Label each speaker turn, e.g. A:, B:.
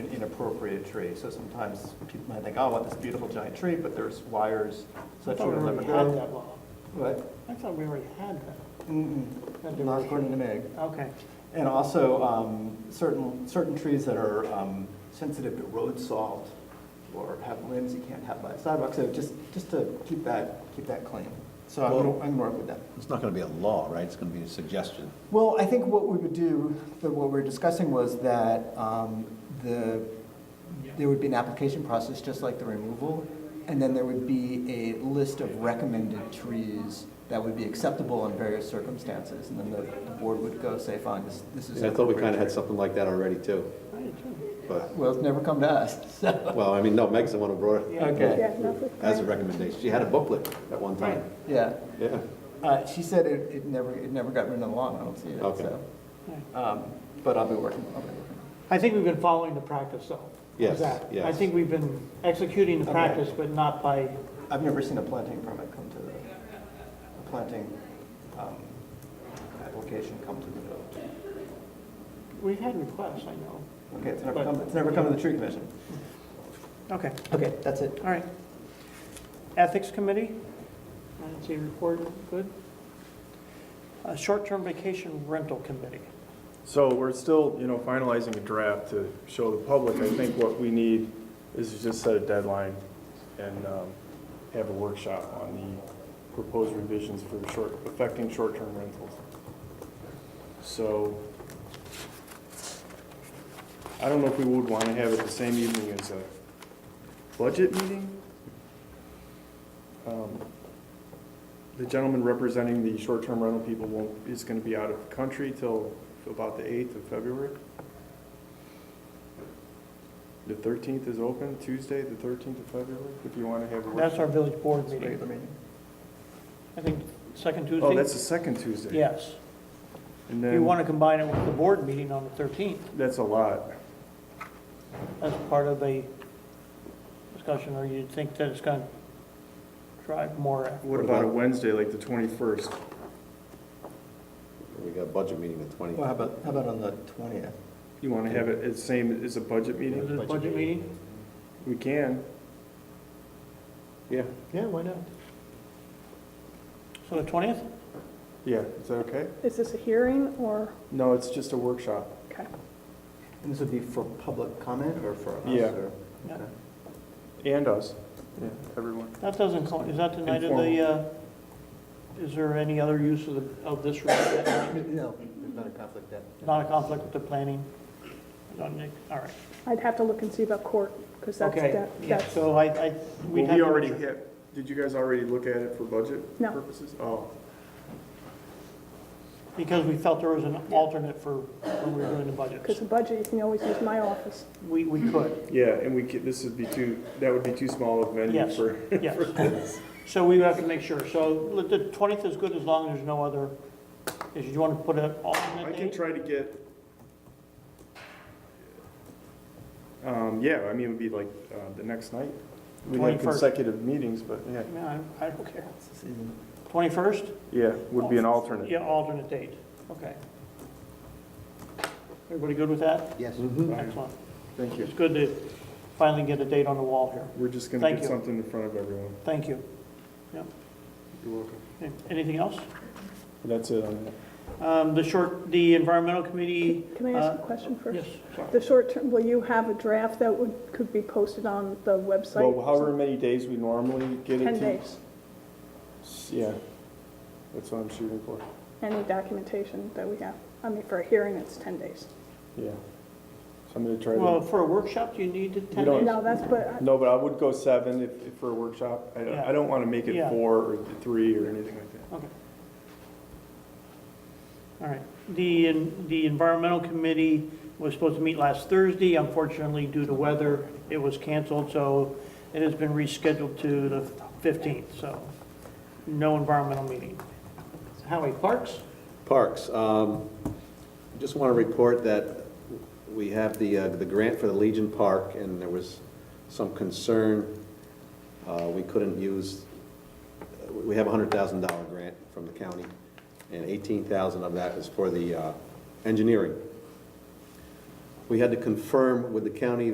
A: an inappropriate tree. So sometimes people might think, oh, I want this beautiful giant tree, but there's wires
B: I
A: such
B: thought we
A: as
B: already had that law.
A: What?
B: I thought we already had that.
A: Mm-mm.
B: Had to-
A: Not according to Meg.
B: Okay,
A: And also, um, certain, certain trees that are um, sensitive to road salt or have limbs you can't have by a sidewalk, so just, just to keep that, keep that clean. So I'm gonna, I'm gonna work with that.
C: It's not going to be a law, right? It's going to be a suggestion.
A: Well, I think what we would do, that what we we're discussing was that um, the, there would be an application process, just like the removal, and then there would be a list of recommended trees that would be acceptable in various circumstances, and then the the board would go say, fine, this, this is.
D: I thought we kind of had
A: something.
D: something like that already too,
B: I did too.
D: but,
A: Well, it's never come to us, so.
D: well, I mean, no, Meg's the one who brought it
A: Okay,
D: as a recommendation. She had a booklet at one time,
A: yeah.
D: yeah.
A: Uh, she said it, it never, it never got written along, I don't see it,
D: Okay.
A: so.
B: Right.
A: Um, but I'll be working, I'll be working.
B: I think we've been following the practice though.
D: Yes,
B: Exactly. I
D: yes.
B: think we've been executing the
A: Okay.
B: practice, but not by,
A: I've never seen a planting permit come to, the a planting, um, application come to the village.
B: we've had requests, I know.
A: Okay, it's never come, it's never come to the tree commission.
B: Okay,
A: Okay, that's it.
B: all right. Ethics Committee, I didn't see a report, good. Uh, Short-term vacation rental committee.
E: So we're still, you know, finalizing a draft to show the public. I think what we need is to just set a deadline and um, have a workshop on the proposed revisions for short, affecting short-term rentals. So I don't know if we would want to have it the same evening as a budget meeting. Um, The gentleman representing the short-term rental people won't, is going to be out of the country till about the 8th of February. The 13th is open, Tuesday, the 13th of February, if you want to have a
B: That's
E: workshop.
B: our village board meeting.
A: Regular meeting.
B: I think second Tuesday.
E: Oh, that's the second Tuesday.
B: Yes.
E: And
B: We want
E: then,
B: to combine it with the board meeting on the 13th.
E: that's a lot.
B: as part of a discussion, or you think that it's going to drive more?
E: What about a Wednesday, like the 21st?
D: We got a budget meeting the
A: Well, how
D: 20th.
A: about, how about on the twentieth?
E: You want to have it as same as a budget
B: Is
E: meeting?
B: it a budget meeting?
E: We can.
D: Yeah,
B: Yeah, why not? So the 20th?
E: Yeah, is that okay?
F: Is this a hearing or,
E: No, it's just a workshop.
F: okay,
A: And this would be for public comment or for us?
E: Yeah.
A: or-
B: Yeah.
A: okay.
E: And us. Yeah, everyone.
B: That doesn't, co- is that the night of the, uh, is there any other use of the, of this room? that night?
A: No, there's not a conflict there.
B: Not a conflict with the planning? Don't make- All right.
F: I'd have to look and see about court, because that's,
B: Okay,
F: that-
B: yeah,
F: that's,
B: so I, I. we'd
E: Well,
B: have
E: we
B: to-
E: already have, did you guys already look at it for budget
F: No.
E: purposes? Oh,
B: Because we felt there was an alternate for when we were doing the
F: because
B: budget.
F: the budget, you can always use my office.
B: We, we could,
E: yeah, and we could, this would be too, that would be too small of a venue
B: Yes.
E: for.
B: yes. So we would have to make sure, so the- the 20th is good as long as there's no other, is you want to put an
E: I
B: alternate
E: can
B: date?
E: try to get. Um, yeah, I mean, it would be like, uh, the next night. We
B: 21st.
E: have consecutive meetings, but yeah,
B: Yeah, I- I don't care.
A: It's the season.
B: 21st?
E: yeah, would be an alternate.
B: Yeah, alternate date, okay. Everybody good with that?
A: Yes.
B: Excellent.
E: Thank you.
B: It's good to finally get a date on the wall here.
E: We're just gonna
B: Thank
E: get
B: you.
E: something in front of everyone.
B: Thank you.
E: You're welcome.
B: Okay, Anything else?
E: That's it on that.
B: Um, The short, the environmental committee,
F: Can I ask
B: Uh,
F: a question first?
B: yes, sorry.
F: The short term, will you have a draft that would, could be posted on the website?
E: Well, however many days we normally get it to.
F: Ten days,
E: S- Yeah, that's what I'm shooting for,
F: any documentation that we have. I mean, for a hearing, it's ten days.
E: yeah. So I'm gonna try
B: Well,
E: to,
B: for a workshop, do you need to
E: You
B: attend?
E: don't-
B: it?
F: No, that's, but,
E: no, but I would go seven if, if for a workshop. I don't,
B: Yeah.
E: I don't wanna make
B: Yeah.
E: it four or th- three or anything like that.
B: Okay. All right. The, the environmental committee was supposed to meet last Thursday. Unfortunately, due to weather, it was canceled, so it has been rescheduled to the 15th, so no environmental meeting. Howie Parks?
D: Parks, um, just want to report that we have the, uh, the grant for the Legion Park, and there was some concern, uh, we couldn't use, uh, we have a hundred thousand dollar grant from the county, and eighteen thousand of that is for the, uh, engineering. We had to confirm with the county